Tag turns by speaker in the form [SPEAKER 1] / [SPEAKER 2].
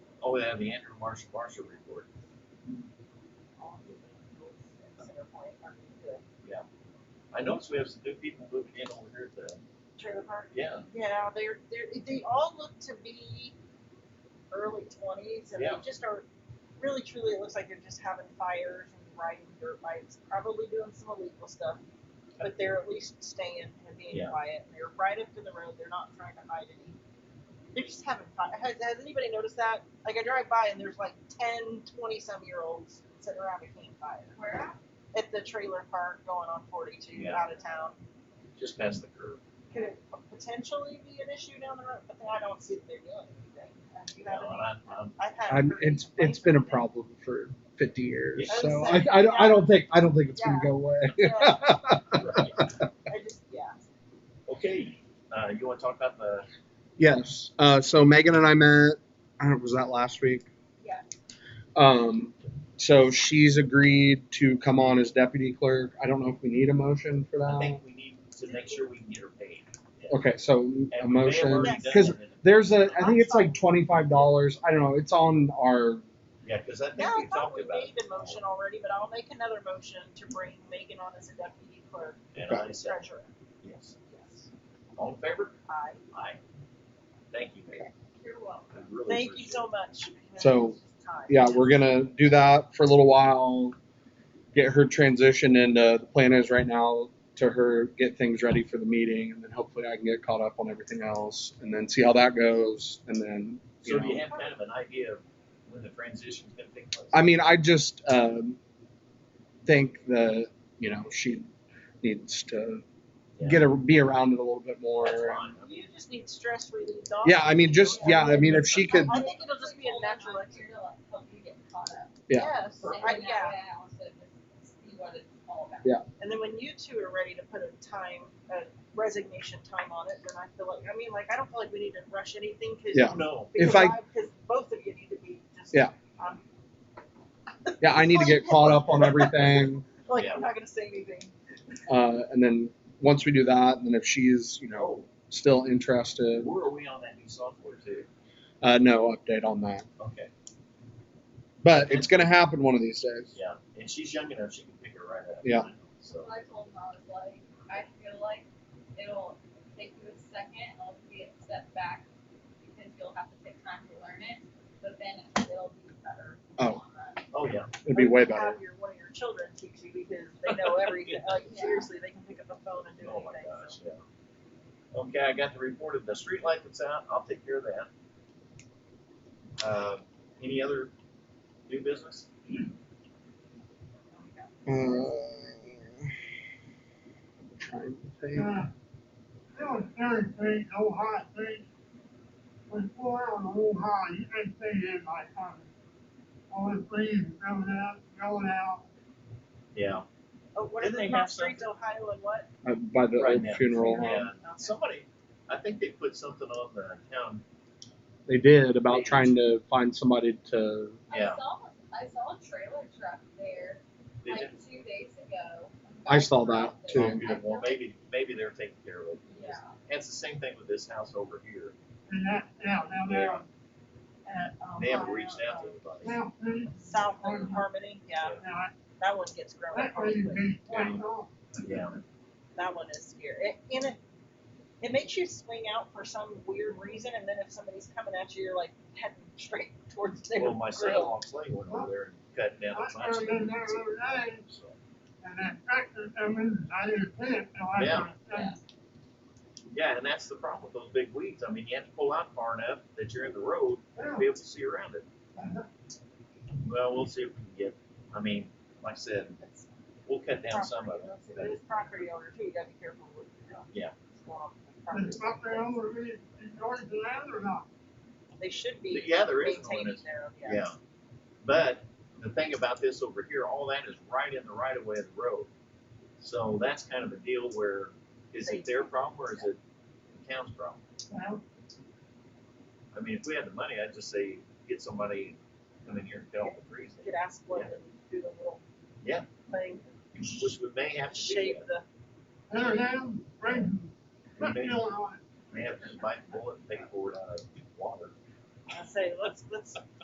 [SPEAKER 1] Oh, yeah, the Andrew Marsh, Marshall report.
[SPEAKER 2] Center Point, or the
[SPEAKER 1] I noticed we have some new people moving in over here at the,
[SPEAKER 2] Trailer park.
[SPEAKER 1] yeah,
[SPEAKER 2] Yeah, they're, they're, they all look to be early twenties and they
[SPEAKER 1] Yeah.
[SPEAKER 2] just are, really truly, it looks like they're just having fires and riding dirt bikes, probably doing some illegal stuff. But they're at least staying and being
[SPEAKER 1] Yeah.
[SPEAKER 2] quiet and they're right up to the road. They're not trying to hide any. They're just having fun. Has, has anybody noticed that? Like I drive by and there's like 10, 20 some year olds sitting around a campfire.
[SPEAKER 3] Where at?
[SPEAKER 2] At the trailer park going on 42
[SPEAKER 1] Yeah.
[SPEAKER 2] out of town
[SPEAKER 1] just past the curb.
[SPEAKER 2] could it potentially be an issue down the road? But then I don't see that they're doing anything. Uh, You
[SPEAKER 1] You
[SPEAKER 2] know,
[SPEAKER 1] know,
[SPEAKER 2] what
[SPEAKER 1] and I'm, I'm,
[SPEAKER 2] I mean? I've had.
[SPEAKER 4] I'm,
[SPEAKER 2] pretty
[SPEAKER 4] it's
[SPEAKER 2] complaints
[SPEAKER 4] it's been a
[SPEAKER 2] with them.
[SPEAKER 4] problem for 50 years,
[SPEAKER 1] Yeah.
[SPEAKER 4] so
[SPEAKER 2] I
[SPEAKER 4] I,
[SPEAKER 2] would say,
[SPEAKER 4] I, don't- I
[SPEAKER 2] yeah.
[SPEAKER 4] don't think I don't think it's gonna
[SPEAKER 2] Yeah.
[SPEAKER 4] go away.
[SPEAKER 2] Yeah,
[SPEAKER 1] right.
[SPEAKER 2] I just, yeah.
[SPEAKER 1] Okay, uh, you wanna talk about the,
[SPEAKER 4] Yes. Uh, so Megan and I met. I don't know, was that last week?
[SPEAKER 2] Yeah.
[SPEAKER 4] Um, so she's agreed to come on as deputy clerk. I don't know if we need a motion for
[SPEAKER 1] I
[SPEAKER 4] that.
[SPEAKER 1] think we need to make sure we can get her paid.
[SPEAKER 4] Okay, so a
[SPEAKER 1] And we may have
[SPEAKER 4] motion.
[SPEAKER 1] already done
[SPEAKER 4] Cause
[SPEAKER 1] it in the-
[SPEAKER 4] there's a, I think it's like twenty-five dollars. I don't know. It's on our,
[SPEAKER 1] Yeah, cause I think
[SPEAKER 2] Now, I
[SPEAKER 1] we
[SPEAKER 2] thought
[SPEAKER 1] talked
[SPEAKER 2] we
[SPEAKER 1] about
[SPEAKER 2] made
[SPEAKER 1] it.
[SPEAKER 2] the motion already, but I'll make another motion to bring Megan on as a deputy clerk,
[SPEAKER 1] And I said,
[SPEAKER 2] treasurer.
[SPEAKER 1] yes.
[SPEAKER 2] Yes.
[SPEAKER 1] All in favor?
[SPEAKER 2] Aye.
[SPEAKER 1] Aye. Thank you, Mayor.
[SPEAKER 2] You're welcome.
[SPEAKER 1] I really
[SPEAKER 2] Thank you
[SPEAKER 1] appreciate
[SPEAKER 2] so much.
[SPEAKER 4] So,
[SPEAKER 2] Time.
[SPEAKER 4] yeah, we're gonna do that for a little while. Get her transitioned and, uh, the plan is right now to her, get things ready for the meeting and then hopefully I can get caught up on everything else and then see how that goes and then,
[SPEAKER 1] it.
[SPEAKER 4] you
[SPEAKER 1] So
[SPEAKER 4] know.
[SPEAKER 1] do you have kind of an idea of when the transition's gonna take place?
[SPEAKER 4] I mean, I just um, think that you know she needs to
[SPEAKER 1] Yeah.
[SPEAKER 4] get a, be around it a little bit more.
[SPEAKER 1] That's fine.
[SPEAKER 2] You just need stress relief, don't you?
[SPEAKER 4] Yeah, I mean, just yeah, I mean, if she could,
[SPEAKER 2] I think it'll just be a natural exercise.
[SPEAKER 4] Yeah.
[SPEAKER 2] Yes, I, yeah.
[SPEAKER 3] See what it's all about.
[SPEAKER 2] And then when you two are ready to put a time, a resignation time on it, then I feel like, I mean, like, I don't feel like we need to rush anything because.
[SPEAKER 4] Yeah.
[SPEAKER 1] No,
[SPEAKER 4] If I-
[SPEAKER 2] Because both of you need to be just. um,
[SPEAKER 4] Yeah.
[SPEAKER 2] I'm,
[SPEAKER 4] yeah, I need to get caught up on everything,
[SPEAKER 2] like,
[SPEAKER 1] Yeah.
[SPEAKER 2] I'm not going to say anything.
[SPEAKER 4] uh, and then once we do that, and then if she's you know
[SPEAKER 1] no,
[SPEAKER 4] still interested,
[SPEAKER 1] where are we on that new software too?
[SPEAKER 4] uh, no update on that.
[SPEAKER 1] Okay,
[SPEAKER 4] But it's gonna happen one of these days.
[SPEAKER 1] yeah, and she's young enough, she can pick it right up.
[SPEAKER 4] Yeah.
[SPEAKER 1] So,
[SPEAKER 3] I told him, I was like, I feel like it'll take you a second, it'll be a step back, because you'll have to take time to learn it, but then it'll be better. in the
[SPEAKER 4] Oh.
[SPEAKER 3] long run."
[SPEAKER 1] oh, yeah,
[SPEAKER 4] It'd be way
[SPEAKER 2] You
[SPEAKER 4] better.
[SPEAKER 2] Have your, one of your children teach you because they know everything. Like,
[SPEAKER 3] Yeah.
[SPEAKER 2] seriously, they can pick up a phone and do
[SPEAKER 1] oh my
[SPEAKER 2] anything.
[SPEAKER 1] gosh, yeah. Okay, I got the report of the street light that's out, I'll take care of that. Uh, any other new business?
[SPEAKER 4] Uh, trying to think.
[SPEAKER 5] Uh, It was very big, no hot thing. When four on the whole high, you can stay in my time. All the breeze coming out, going out.
[SPEAKER 1] Yeah,
[SPEAKER 2] Oh, what is
[SPEAKER 1] Didn't
[SPEAKER 2] it?
[SPEAKER 1] they have
[SPEAKER 2] Mount Streets, Ohio, and what?
[SPEAKER 4] Uh, by the
[SPEAKER 1] Right
[SPEAKER 4] old
[SPEAKER 1] now.
[SPEAKER 4] funeral home.
[SPEAKER 1] yeah,
[SPEAKER 2] Okay.
[SPEAKER 1] somebody, I think they put something on the town,
[SPEAKER 4] They did about
[SPEAKER 1] Page.
[SPEAKER 4] trying to find somebody to.
[SPEAKER 1] Yeah.
[SPEAKER 3] I saw, I saw a trailer truck there,
[SPEAKER 1] did
[SPEAKER 3] like,
[SPEAKER 1] it?
[SPEAKER 3] two days ago.
[SPEAKER 4] I saw that,
[SPEAKER 3] I
[SPEAKER 4] too.
[SPEAKER 3] feel like-
[SPEAKER 1] Well, maybe, maybe they're taking care of it.
[SPEAKER 3] Yeah.
[SPEAKER 1] And it's the same thing with this house over here,
[SPEAKER 5] And that's out down there at, um,
[SPEAKER 1] they haven't reached out to anybody.
[SPEAKER 5] South Street.
[SPEAKER 2] South Lake Harmony. Yeah,
[SPEAKER 5] Now, I-
[SPEAKER 2] that one gets grown up.
[SPEAKER 5] that way
[SPEAKER 2] pretty
[SPEAKER 5] you
[SPEAKER 2] quick.
[SPEAKER 5] can swing off.
[SPEAKER 1] Yeah,
[SPEAKER 2] That one is scary. It, and it, it makes you swing out for some weird reason, and then if somebody's coming at you, you're like heading straight towards their
[SPEAKER 1] Well, my son
[SPEAKER 2] grill.
[SPEAKER 1] on Clay went over there and cut down
[SPEAKER 5] I
[SPEAKER 1] the bunch.
[SPEAKER 5] turned in there the other day,
[SPEAKER 1] So,
[SPEAKER 5] and that tractor come in, I didn't see it till I.
[SPEAKER 1] Yeah.
[SPEAKER 3] Yeah.
[SPEAKER 1] Yeah, and that's the problem with those big weeds. I mean, you have to pull out far enough that you're in the road to be able to see around it. Well, we'll see if we can get, I mean, like I said,
[SPEAKER 2] It's
[SPEAKER 1] we'll cut down some of it.
[SPEAKER 2] property. That's it. It is property owner too. You gotta be careful with you know,
[SPEAKER 1] Yeah.
[SPEAKER 2] swamp and
[SPEAKER 5] It's
[SPEAKER 2] property.
[SPEAKER 5] up there over me, it's going to land or not.
[SPEAKER 2] They should be
[SPEAKER 1] Yeah, there is an
[SPEAKER 2] maintaining
[SPEAKER 1] ordinance.
[SPEAKER 2] their own.
[SPEAKER 1] Yeah.
[SPEAKER 2] Yes.
[SPEAKER 1] But the thing about this over here, all that is right in the right of way of the road. So that's kind of a deal where, is it their problem or is it the town's problem?
[SPEAKER 5] Well,
[SPEAKER 1] I mean, if we had the money, I'd just say, get somebody, come in here and cut all the trees.
[SPEAKER 2] You could ask one and do the little
[SPEAKER 1] Yeah.
[SPEAKER 2] thing,
[SPEAKER 1] Which we may have to do
[SPEAKER 2] shave
[SPEAKER 1] that.
[SPEAKER 2] the.
[SPEAKER 5] There's them, bring,
[SPEAKER 1] We
[SPEAKER 5] put
[SPEAKER 1] may-
[SPEAKER 5] fuel on it.
[SPEAKER 1] may have to bite bullet and take it forward out of uh, water.
[SPEAKER 2] I say let's let's